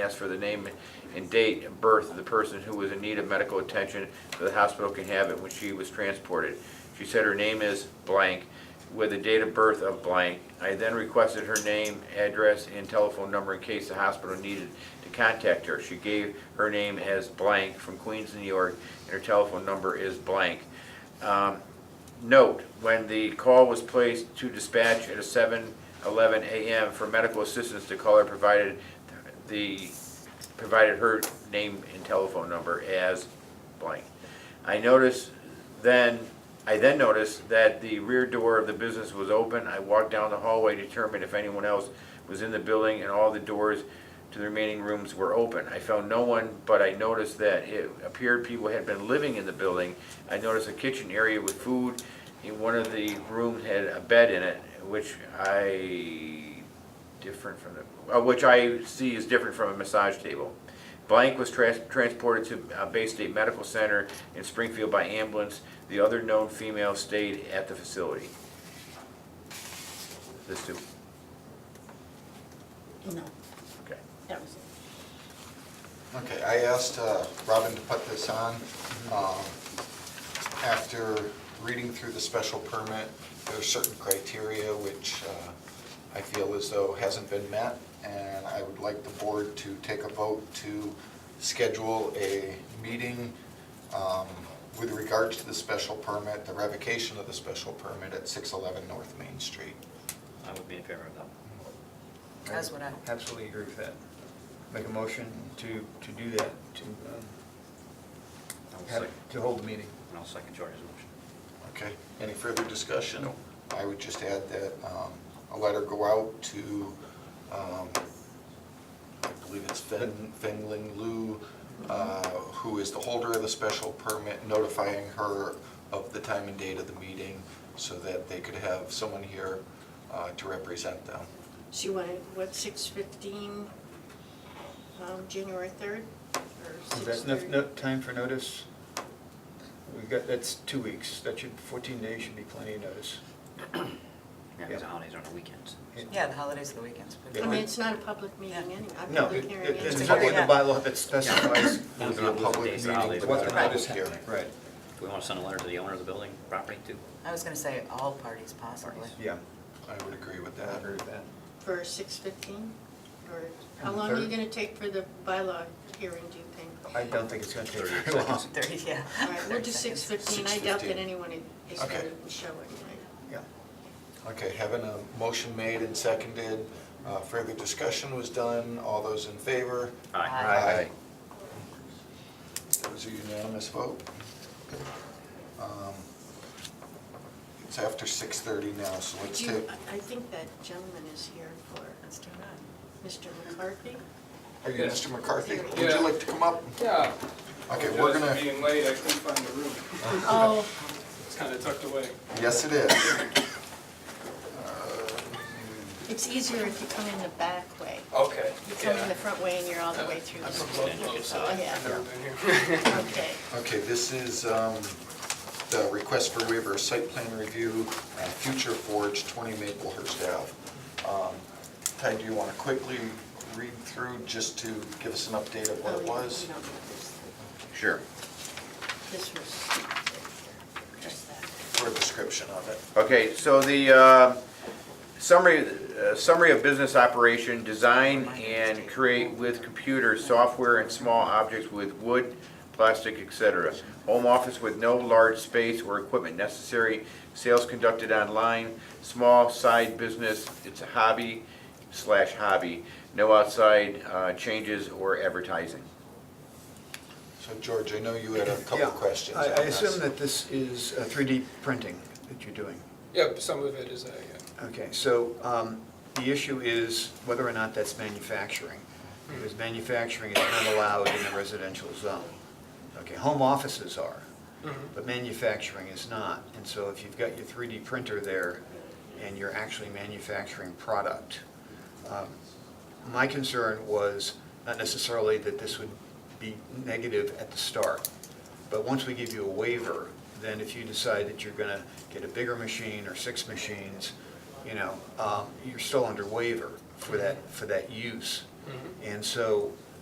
Ask for the name and date of birth of the person who was in need of medical attention so the hospital can have it when she was transported. She said her name is blank with a date of birth of blank. I then requested her name, address, and telephone number in case the hospital needed to contact her. She gave her name as blank from Queens, New York, and her telephone number is blank. Um, Note, when the call was placed to dispatch at a 7:11 a.m. for medical assistance, the caller provided the, provided her name and telephone number as blank. I noticed then, I then noticed that the rear door of the business was open. I walked down the hallway, determined if anyone else was in the building, and all the doors to the remaining rooms were open. I found no one, but I noticed that it appeared people had been living in the building. I noticed a kitchen area with food, and one of the rooms had a bed in it, which I different from the, uh, which I see is different from a massage table. Blank was trans- transported to uh, Bay State Medical Center in Springfield by ambulance. The other known female stayed at the facility. This too, No, okay. that was it. Okay, I asked uh, Robin to put this on. Um, After reading through the special permit, there are certain criteria which uh, I feel as though hasn't been met, and I would like the board to take a vote to schedule a meeting um, with regards to the special permit, the revocation of the special permit at 611 North Main Street. I would be in favor of that. That's what I- Absolutely agree with that. Make a motion to, to do that, to, um, I will have, second, it- to hold the meeting. and I'll second George's motion. Okay, any further discussion? I would just add that um, a letter go out to, um, I believe it's Fen- Fengling Lu, uh, who is the holder of the special permit, notifying her of the time and date of the meeting so that they could have someone here uh, to represent them. She wanted, what, six fifteen, um, January third, or Is six that enough, thirty? enough time for notice? We've got, that's two weeks, that should, fourteen days should be plenty of notice. Yeah, because Yeah. the holidays are on the weekends. Yeah, the holidays and the weekends. I mean, it's not a public meeting Yeah. anyway, a No, public it- hearing. it- there's anyway. public nothing in the hearing. bylaws that specifies Yeah. It would be a public Days, the meeting holidays, what the Right. notice hearing. Right, Do we want to send a letter to the owner of the building, property too? I was gonna say all parties possibly. yeah, I would agree with I that. agree with that. For six fifteen, or how On the long are you third? gonna take for the bylaw hearing, do you think? I don't think it's gonna take Thirty very long. seconds. Thirty, yeah. All right, we'll do 30 six seconds. fifteen, I doubt that 6:15. anyone is gonna Okay. show it, right? Yeah, Okay, having a motion made and seconded, uh, further discussion was done, all those in favor? Aye. Aye. That was a unanimous vote. Um, It's after 6:30 now, so let's Do you- take, I I think that gentleman is here for Let's do that. Mr. McCarthy. are you Mr. McCarthy? Would Yeah. you like to come up? Yeah. Okay, we're Just gonna, Being late, I couldn't find the room. Oh, It's kind of tucked away. yes, it is. it's easier if you come in the back way. Okay. You come in the front way and you're all the way through I'm the from street. Buffalo, so Oh, yeah. I've never been here. Okay. Okay, this is um, the request for waiver of site plan review, uh, Future Forge, 20 Maplehurst Ave. Um, Ty, do you want to quickly read through just to give us an update of what Oh, it yeah, was? we don't need this. Sure. This was, just that. For a description of it. Okay, so the uh, summary, uh, summary of business operation, design and create with computer, software and small objects with wood, plastic, etc. Home office with no large space or equipment necessary, sales conducted online, small side business, it's a hobby slash hobby, no outside uh, changes or advertising. So George, I know you had a couple Yeah. questions I, on I this. assume that this is uh, 3D printing that you're doing. Yep, some of it is, uh, Okay, so um, the issue is whether or not that's manufacturing, because manufacturing is not allowed in a residential zone. Okay, home offices are, yeah. but manufacturing is not. And so if you've got your 3D printer there and you're actually manufacturing product, um, my concern was not necessarily that this would be negative at the start, but once we give you a waiver, then if you decide that you're going to get a bigger machine or six machines, you know, um, you're still under waiver for that, for that use. And so